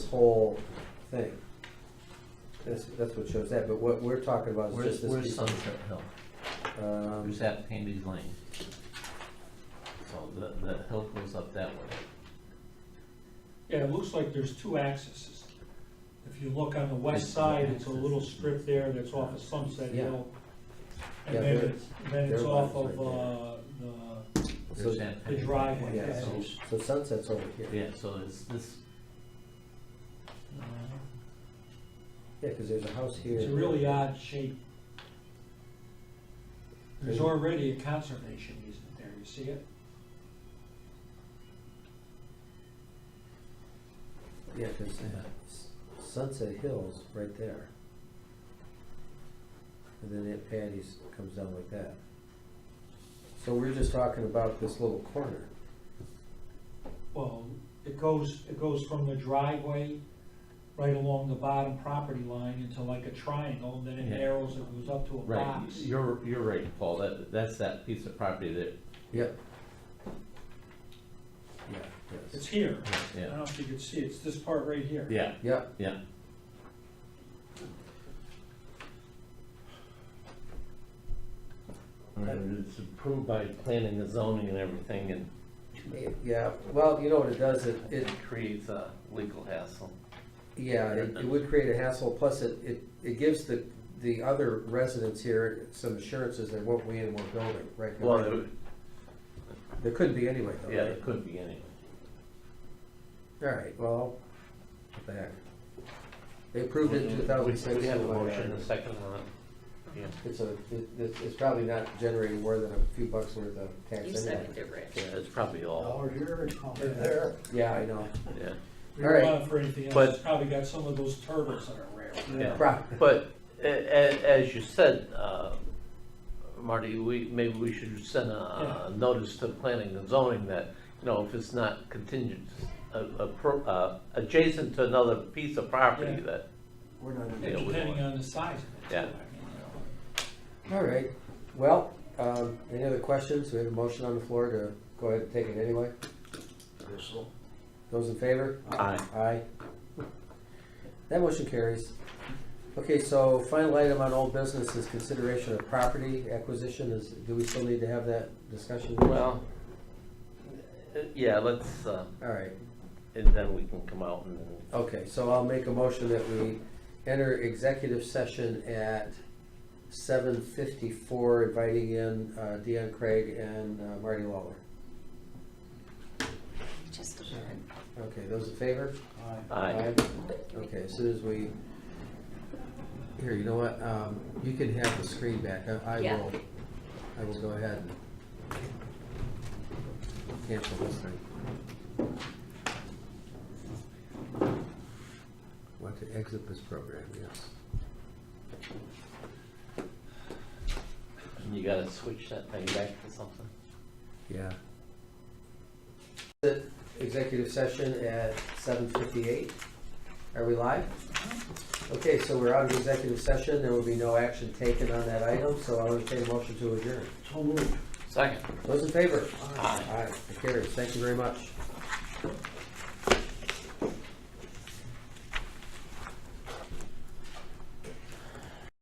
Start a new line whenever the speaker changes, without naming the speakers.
whole thing. That's, that's what shows that, but what we're talking about is
Where's,
just this
where's
piece.
Sunset Hill?
um,
Where's that Candy's Lane? So the, the hill goes up that way.
Yeah, it looks like there's two accesses. If you look on the west side, it's a little strip there that's off of Sunset
Yeah.
Hill. And
Yeah,
then
there-
it's, then it's
there
off
it
of,
is right
uh, the,
So-
There's that.
the driveway.
Yeah,
Yeah.
so- so Sunset's over here.
Yeah, so it's this. uh,
Yeah, because there's a house here.
It's a really odd shape. There's
Really?
already a conservation easement there, you see it?
Yeah, because
Yeah.
Sunset Hill's right there. And then Aunt Patty's comes down like that. So we're just talking about this little corner.
Well, it goes, it goes from the driveway right along the bottom property line into like a triangle, and then it
Yeah.
narrows, it goes up to a
Right,
box.
you're, you're right, Paul, that, that's that piece of property that,
Yep. Yeah, yes.
It's here. I don't
yeah,
know if you can see, it's this part right here.
yeah,
Yep,
yeah. And it's approved by planning and zoning and everything and
yeah, well, you know what it does, it, it,
it creates a legal hassle.
yeah, it it would create a hassle, plus it, it, it gives the, the other residents here some assurances they won't be in one building, right?
Well, it-
There couldn't be anyway, though,
yeah,
right?
it could be anyway.
All right, well, what the heck? They approved it in two thousand six.
We have a motion, a second on it.
It's a, it- it's, it's probably not generating more than a few bucks worth of tax
You
anyway.
seconded it, Rich.
Yeah, it's probably all,
Oh,
Dollar here, dollar there.
Yeah, I know.
yeah.
We
All right.
don't want it for anything
But-
else, it's probably got some of those turtles that are rare.
Yeah.
Pro-
But a- a- as you said, uh, Marty, we, maybe we should send a- a notice to planning and zoning that, you know, if it's not contingent, uh, appro- uh, adjacent to another piece of property
Yeah.
that,
We're not. in-
Yeah, we
Depending
don't-
on the size of it. too.
Yeah.
I mean, you
All right, well, um, any other questions? We have a motion on the floor to go ahead and take it anyway.
This'll,
Those in favor?
Aye.
Aye. That motion carries. Okay, so final item on old business is consideration of property acquisition. Is, do we still need to have that discussion?
well, uh, yeah, let's, uh,
All right,
and then we can come out and then
okay, so I'll make a motion that we enter executive session at seven fifty-four, inviting in uh, Deanne Craig and uh, Marty Lawler.
Just a minute.
Okay, those in favor?
aye.
Aye.
Okay, as soon as we, here, you know what, um, you can have the screen back, I, I
Yeah.
will, I will go ahead and cancel this thing. Want to exit this program, yes.
you gotta switch that thing back to something.
Yeah. The executive session at seven fifty-eight. Are we live? Okay, so we're out of executive session. There will be no action taken on that item, so I'll entertain a motion to adjourn.
So moved.
Second.
Those in favor?
Aye.
Aye, it carries. Thank you very much.